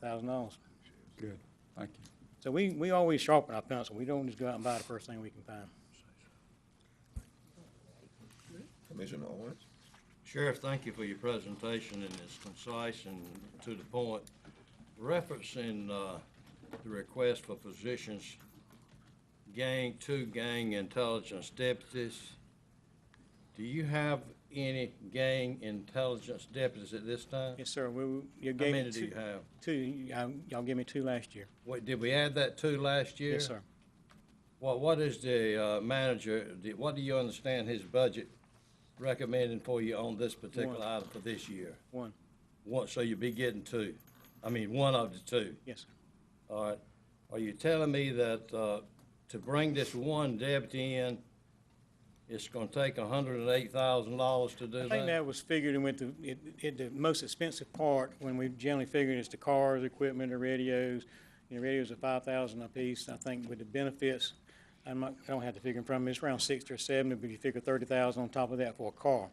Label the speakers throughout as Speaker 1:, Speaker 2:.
Speaker 1: thousand dollars.
Speaker 2: Good, thank you.
Speaker 1: So we, we always sharpen our pencil. We don't just go out and buy the first thing we can find.
Speaker 3: Commissioner Owens?
Speaker 4: Sheriff, thank you for your presentation, and it's concise and to the point. Referencing uh, the request for positions, gang, two gang intelligence deputies. Do you have any gang intelligence deputies at this time?
Speaker 1: Yes, sir, we, we- you
Speaker 4: How
Speaker 1: gave me
Speaker 4: many do
Speaker 1: two,
Speaker 4: you have?
Speaker 1: two, y'all y'all gave me two last year.
Speaker 4: Wait, did we add that two last year?
Speaker 1: Yes, sir.
Speaker 4: What, what is the uh, manager, do- what do you understand his budget recommending for you on this particular
Speaker 1: One.
Speaker 4: item for this year?
Speaker 1: One,
Speaker 4: One, so you'll be getting two. I mean, one of the two.
Speaker 1: yes, sir.
Speaker 4: All right. Are you telling me that, uh, to bring this one deputy in, it's gonna take hundred and eight thousand dollars to do
Speaker 1: I think
Speaker 4: that?
Speaker 1: that was figured and went to, it, it, the most expensive part, when we generally figured it's the cars, equipment, the radios. You know, radios are five thousand apiece. I think with the benefits, I'm not, I don't have to figure in front of me, it's around sixty or seventy, but if you figure thirty thousand on top of that for a car.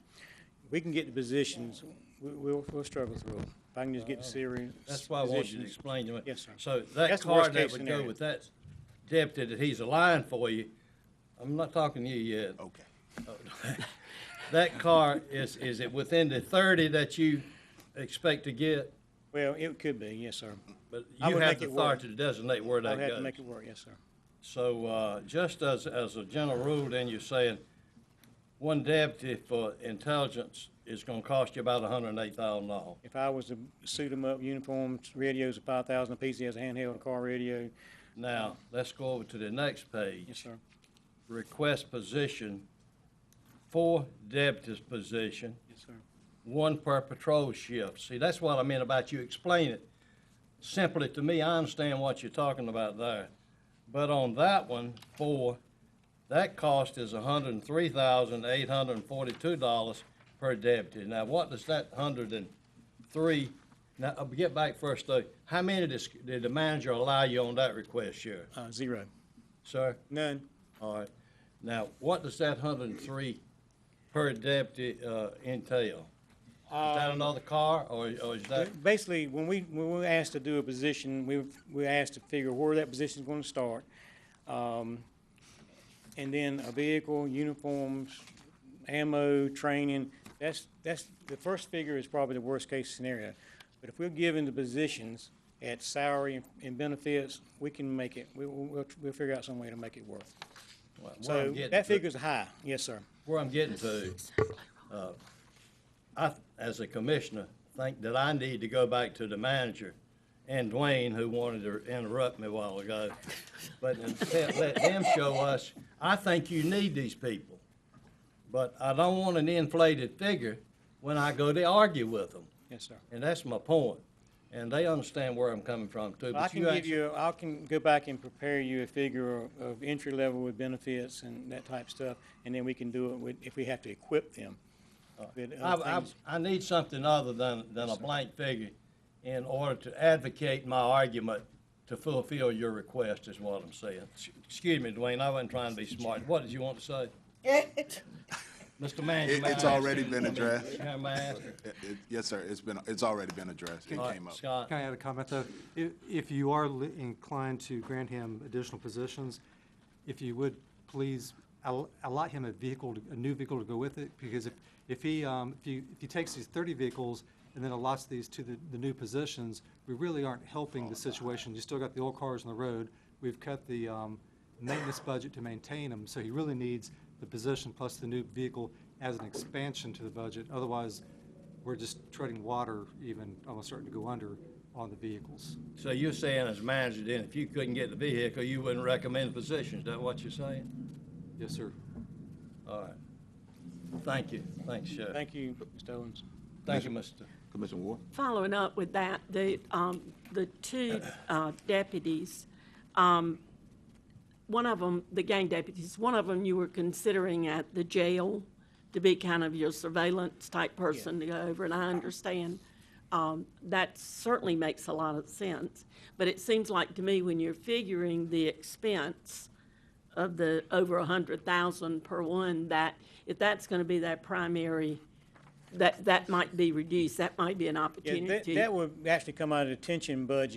Speaker 1: We can get the positions, we, we'll, we'll struggle through it. If I can just get the series.
Speaker 4: That's why I wanted you to
Speaker 1: positions.
Speaker 4: explain to me.
Speaker 1: Yes, sir.
Speaker 4: So that
Speaker 1: That's the worst
Speaker 4: car that
Speaker 1: case
Speaker 4: would go
Speaker 1: scenario.
Speaker 4: with that deputy that he's aligned for you, I'm not talking to you yet.
Speaker 3: Okay.
Speaker 4: That car is, is it within the thirty that you expect to get?
Speaker 1: Well, it could be, yes, sir.
Speaker 4: But
Speaker 1: I
Speaker 4: you
Speaker 1: would
Speaker 4: have
Speaker 1: make
Speaker 4: the
Speaker 1: it work.
Speaker 4: authority to designate where
Speaker 1: I'll
Speaker 4: that
Speaker 1: have to
Speaker 4: goes.
Speaker 1: make it work, yes, sir.
Speaker 4: So, uh, just as, as a general rule, then you're saying one deputy for intelligence is gonna cost you about hundred and eight thousand dollars.
Speaker 1: If I was to suit him up, uniforms, radios are five thousand apiece, he has a handheld, a car radio,
Speaker 4: Now, let's go over to the next page.
Speaker 1: yes, sir,
Speaker 4: Request position, four deputies position,
Speaker 1: yes, sir.
Speaker 4: one per patrol shift. See, that's what I meant about you explain it simply to me. I understand what you're talking about there. But on that one, four, that cost is hundred and three thousand, eight hundred and forty-two dollars per deputy. Now, what does that hundred and three, now, uh, get back first though. How many dis- did the manager allow you on that request, Sheriff?
Speaker 1: Uh, zero,
Speaker 4: Sir?
Speaker 1: none,
Speaker 4: All right. Now, what does that hundred and three per deputy, uh, entail? Is
Speaker 1: Um,
Speaker 4: that another car, or, or is that,
Speaker 1: Basically, when we, when we were asked to do a position, we, were- we were asked to figure where that position's gonna start. Um, and then a vehicle, uniforms, ammo, training, that's, that's, the first figure is probably the worst-case scenario. But if we're given the positions at salary and benefits, we can make it, we, we'll, we'll- we'll figure out some way to make it work.
Speaker 4: where I'm
Speaker 1: So,
Speaker 4: getting
Speaker 1: that
Speaker 4: to-
Speaker 1: figure's high, yes, sir.
Speaker 4: Where I'm getting to, uh, I, as a commissioner, think that I need to go back to the manager and Dwayne, who wanted to interrupt me a while ago, but instead let them show us, I think you need these people. But I don't want an inflated figure when I go to argue with them,
Speaker 1: Yes, sir.
Speaker 4: and that's my point. And they understand where I'm coming from too,
Speaker 1: I
Speaker 4: but
Speaker 1: can
Speaker 4: you
Speaker 1: give
Speaker 4: actually,
Speaker 1: you, I can go back and prepare you a figure of- of entry level with benefits and that type of stuff, and then we can do it with, if we have to equip them. uh, with
Speaker 4: I,
Speaker 1: other
Speaker 4: I,
Speaker 1: things.
Speaker 4: I need something other than, than a blank figure in order to advocate my argument to fulfill your request is what I'm saying. S- Excuse me, Dwayne, I wasn't trying to be smart. What did you want to say? Mr. Manager,
Speaker 5: It-
Speaker 4: may I
Speaker 5: It's
Speaker 4: ask
Speaker 5: already
Speaker 4: you-
Speaker 5: been addressed.
Speaker 4: Chair, may I ask you?
Speaker 5: It- it- Yes, sir, it's been, it's already been addressed. It
Speaker 4: All
Speaker 5: came
Speaker 4: right,
Speaker 5: up.
Speaker 4: Scott,
Speaker 2: Can I add a comment, though? If, if you are li- inclined to grant him additional positions, if you would please al- allot him a vehicle, to- a new vehicle to go with it, because if, if he, um, if you, if he takes these thirty vehicles and then allots these to the, the new positions, we really aren't helping the situation. You still got the old cars on the road. We've cut the, um, maintenance budget to maintain them, so he really needs the position plus the new vehicle as an expansion to the budget. Otherwise, we're just treading water even, almost starting to go under on the vehicles.
Speaker 4: so you're saying as manager then, if you couldn't get the vehicle, you wouldn't recommend positions. Is that what you're saying?
Speaker 2: Yes, sir.
Speaker 4: All right. Thank you. Thanks, Sheriff.
Speaker 1: Thank you, Mr. Owens.
Speaker 4: Thank you, Mr.
Speaker 3: Commissioner Ward?
Speaker 6: Following up with that, the, um, the two, uh, deputies, um, one of them, the gang deputies, one of them you were considering at the jail to be kind of your surveillance type person to go over, and I understand. Um, that certainly makes a lot of sense, but it seems like to me when you're figuring the expense, of the over a hundred thousand per one, that if that's gonna be their primary that, that might be reduced, that might be an
Speaker 1: Yeah, that,
Speaker 6: opportunity.
Speaker 1: that would actually come out of the detention budget.